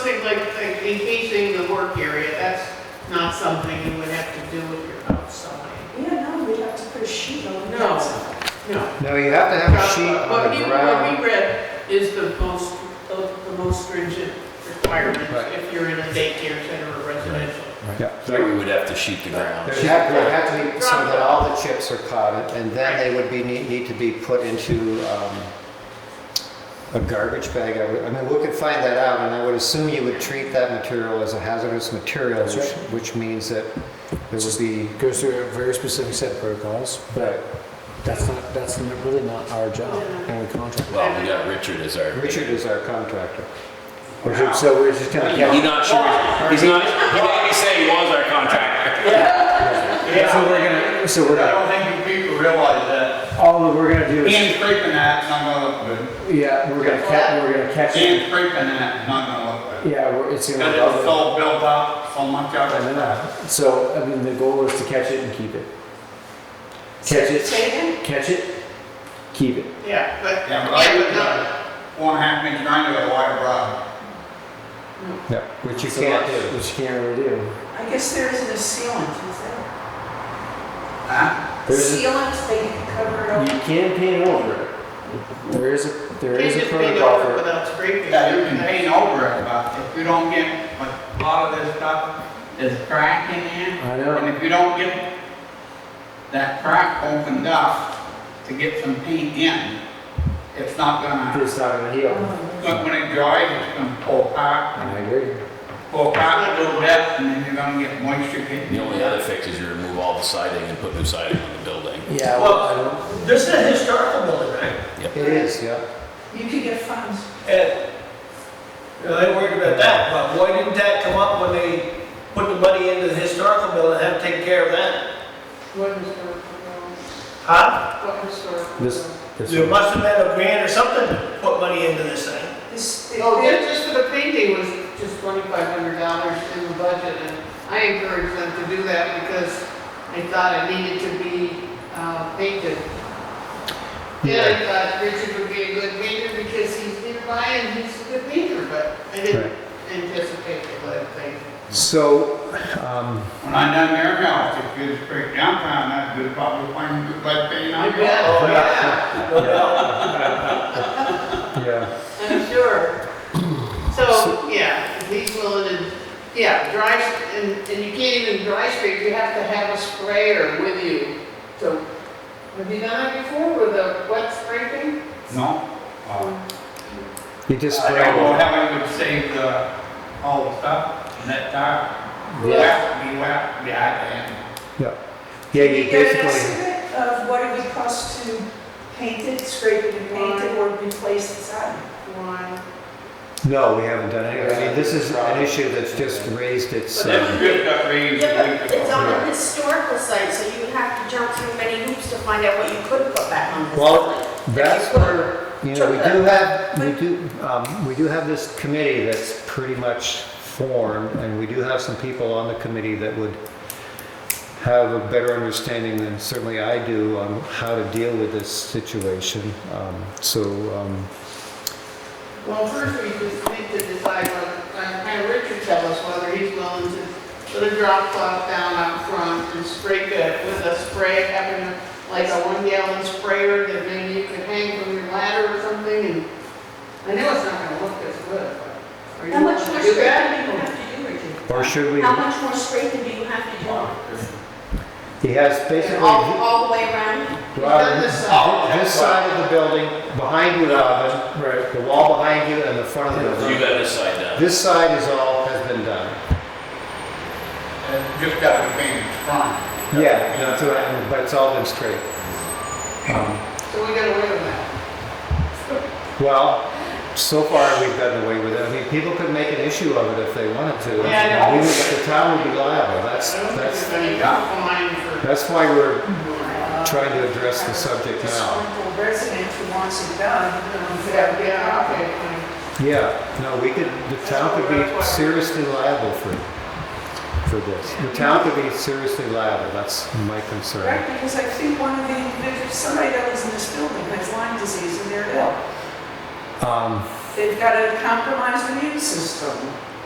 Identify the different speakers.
Speaker 1: not something you would have to do with your house, something.
Speaker 2: Yeah, no, we'd have to put a sheet on the
Speaker 1: No.
Speaker 2: outside.
Speaker 1: No.
Speaker 3: No, you have to have a sheet
Speaker 1: But
Speaker 3: on the
Speaker 1: even
Speaker 3: ground.
Speaker 1: what we read is the most, the most stringent requirement
Speaker 3: Right.
Speaker 1: if you're in a daycare center or residential.
Speaker 3: Yeah.
Speaker 4: There we would have to sheet the ground.
Speaker 3: There have, there have to be, so that all the chips are caught, and then they would be, need, need to be put into, um, a garbage bag. I would- I mean, we could find that out, and I would assume you would treat that material as a hazardous material,
Speaker 5: That's
Speaker 3: which,
Speaker 5: right.
Speaker 3: which means that there would be,
Speaker 5: Goes through a very specific set of protocols,
Speaker 3: but
Speaker 5: that's not, that's n- really not our job when we contract.
Speaker 4: Well, we got Richard as our.
Speaker 3: Richard is our contractor.
Speaker 5: Richard, So we're just gonna
Speaker 4: He's
Speaker 5: count,
Speaker 4: not sure. He's not. He didn't say he was our contractor.
Speaker 5: so we're gonna, so we're
Speaker 6: I
Speaker 5: gonna,
Speaker 6: don't think you people realize that.
Speaker 5: all that we're gonna do is,
Speaker 6: Hand scraping that is not gonna look good.
Speaker 5: yeah, we're gonna catch, we're gonna catch it.
Speaker 6: Hand scraping that is not gonna look good.
Speaker 5: Yeah, we're, it's gonna.
Speaker 6: Because it was all built up so much out
Speaker 5: I
Speaker 6: of
Speaker 5: don't know.
Speaker 6: that.
Speaker 5: uh, So, I mean, the goal is to catch it and keep it. Catch it,
Speaker 1: Say
Speaker 5: catch it, keep it.
Speaker 1: again? Yeah, but,
Speaker 6: Yeah, but I would
Speaker 1: yeah,
Speaker 6: one half inch grinder with a wire rod.
Speaker 3: Yeah. Which you
Speaker 5: So
Speaker 3: can't
Speaker 5: that's-
Speaker 3: do.
Speaker 5: Which you can't really do.
Speaker 2: I guess there isn't a sealant, is there?
Speaker 6: Huh?
Speaker 5: There's a-
Speaker 2: Sealant, they can cover it
Speaker 5: You
Speaker 2: up.
Speaker 5: can paint over it. There is a,
Speaker 1: but
Speaker 5: there
Speaker 1: you
Speaker 5: is a
Speaker 1: just paint
Speaker 5: protocol
Speaker 1: over it
Speaker 5: for,
Speaker 1: without scraping.
Speaker 6: Yeah, you can paint over it, but if you don't get, like, a lot of this stuff is crack in there.
Speaker 5: I know.
Speaker 6: And if you don't get that crack opened up to get some paint in, it's not gonna,
Speaker 5: it's not gonna heal.
Speaker 6: but when it dries, it's gonna pull apart.
Speaker 5: I agree.
Speaker 6: Well, back a little bit, and then you're gonna get moisture getting.
Speaker 4: The only other fix is you remove all the siding and put new siding on the building.
Speaker 5: Yeah, well, I don't,
Speaker 7: This is a historical building, right?
Speaker 3: It is, yeah.
Speaker 2: You could get funds.
Speaker 7: And, you know, they worried about that, but why didn't that come up when they put the money into the historical building and have to take care of that?
Speaker 1: What historical, building?
Speaker 7: Huh?
Speaker 1: what historical?
Speaker 5: this,
Speaker 1: building?
Speaker 5: this.
Speaker 7: There must have been a grant or something to put money into this thing.
Speaker 2: This,
Speaker 1: Oh, yeah,
Speaker 2: the-
Speaker 1: just for the painting was just twenty-five hundred dollars in the budget, and I encouraged them to do that because I thought it needed to be, uh, painted. Yeah, I thought Richard would be a good painter because he's nearby and he's a good painter, but I didn't anticipate it, but I
Speaker 3: So, um,
Speaker 6: When I done their house, if you just break downtown, that would probably find a good lead paint on
Speaker 1: I
Speaker 6: it.
Speaker 1: bet,
Speaker 7: Oh,
Speaker 1: yeah,
Speaker 3: yeah,
Speaker 1: I'm sure. So, yeah, if he's willing to, yeah, dry, and, and you can't even dry scrape, you have to have a sprayer with you. So, have you done it before with a wet scraping?
Speaker 6: No? Oh.
Speaker 3: you just
Speaker 6: I don't know
Speaker 3: spray it.
Speaker 6: how I would save the, all the stuff, in that tire.
Speaker 1: Yeah.
Speaker 6: Whack, be whack, be I
Speaker 3: Yeah, yeah,
Speaker 2: Did
Speaker 3: you
Speaker 2: you get an
Speaker 3: basically,
Speaker 2: estimate of what it would cost to paint it, scrape it and paint it, or replace the siding?
Speaker 1: One.
Speaker 3: no, we haven't done it. I mean, this is an issue that's just raised its,
Speaker 6: That
Speaker 3: uh,
Speaker 6: strip got raised a
Speaker 8: Yeah,
Speaker 6: week
Speaker 8: but it's on
Speaker 6: ago.
Speaker 8: a historical site, so you have to jump through many hoops to find out what you could put back on this
Speaker 3: Well,
Speaker 8: building.
Speaker 3: that's where, you know, we do have, we do, um, we do have this committee that's pretty much formed, and we do have some people on the committee that would have a better understanding than certainly I do on how to deal with this situation. Um, so, um,
Speaker 1: Well, first we just need to decide what, and have Richard tell us whether he's willing to put a drop cloth down out front and scrape it with a spray, having like a one gallon sprayer that maybe you could hang from your ladder or something, and I know it's not gonna look as good, but are you
Speaker 8: How much
Speaker 1: willing
Speaker 8: more
Speaker 1: to
Speaker 8: scraping
Speaker 1: do
Speaker 8: do you
Speaker 1: that?
Speaker 8: have to do, Richard?
Speaker 3: or should we,
Speaker 8: How much more scraping do you have to do?
Speaker 3: he has basically.
Speaker 8: All,
Speaker 1: Oh.
Speaker 8: all the way around?
Speaker 1: We've done this side.
Speaker 3: This side of the building, behind you, Robin,
Speaker 5: Right.
Speaker 3: the wall behind you and the front of the building.
Speaker 4: You got this side down.
Speaker 3: This side is all, has been done.
Speaker 6: It just got to be painted front.
Speaker 3: Yeah, no, it's all right, but it's all been straight. Um,
Speaker 1: So we gotta wait on that.
Speaker 3: Well, so far we've gotten away with it. I mean, people could make an issue of it if they wanted to.
Speaker 1: Yeah, I know.
Speaker 3: We would- The town would be liable. That's,
Speaker 1: I don't think
Speaker 3: that's,
Speaker 1: there's any fine for.
Speaker 3: that's why we're
Speaker 2: Uh,
Speaker 3: trying to address the subject now.
Speaker 2: Disgruntled resident who wants it done, you know, if they have
Speaker 1: Yeah,
Speaker 2: a big
Speaker 1: yeah,
Speaker 2: problem.
Speaker 1: okay, fine.
Speaker 3: Yeah, no, we could, the town could be seriously liable for, for this. The town could be seriously liable. That's my concern.
Speaker 2: Right, because I think one of the individuals, somebody that lives in this building has Lyme disease and they're ill.
Speaker 3: Um,
Speaker 2: They've got a compromised immune system.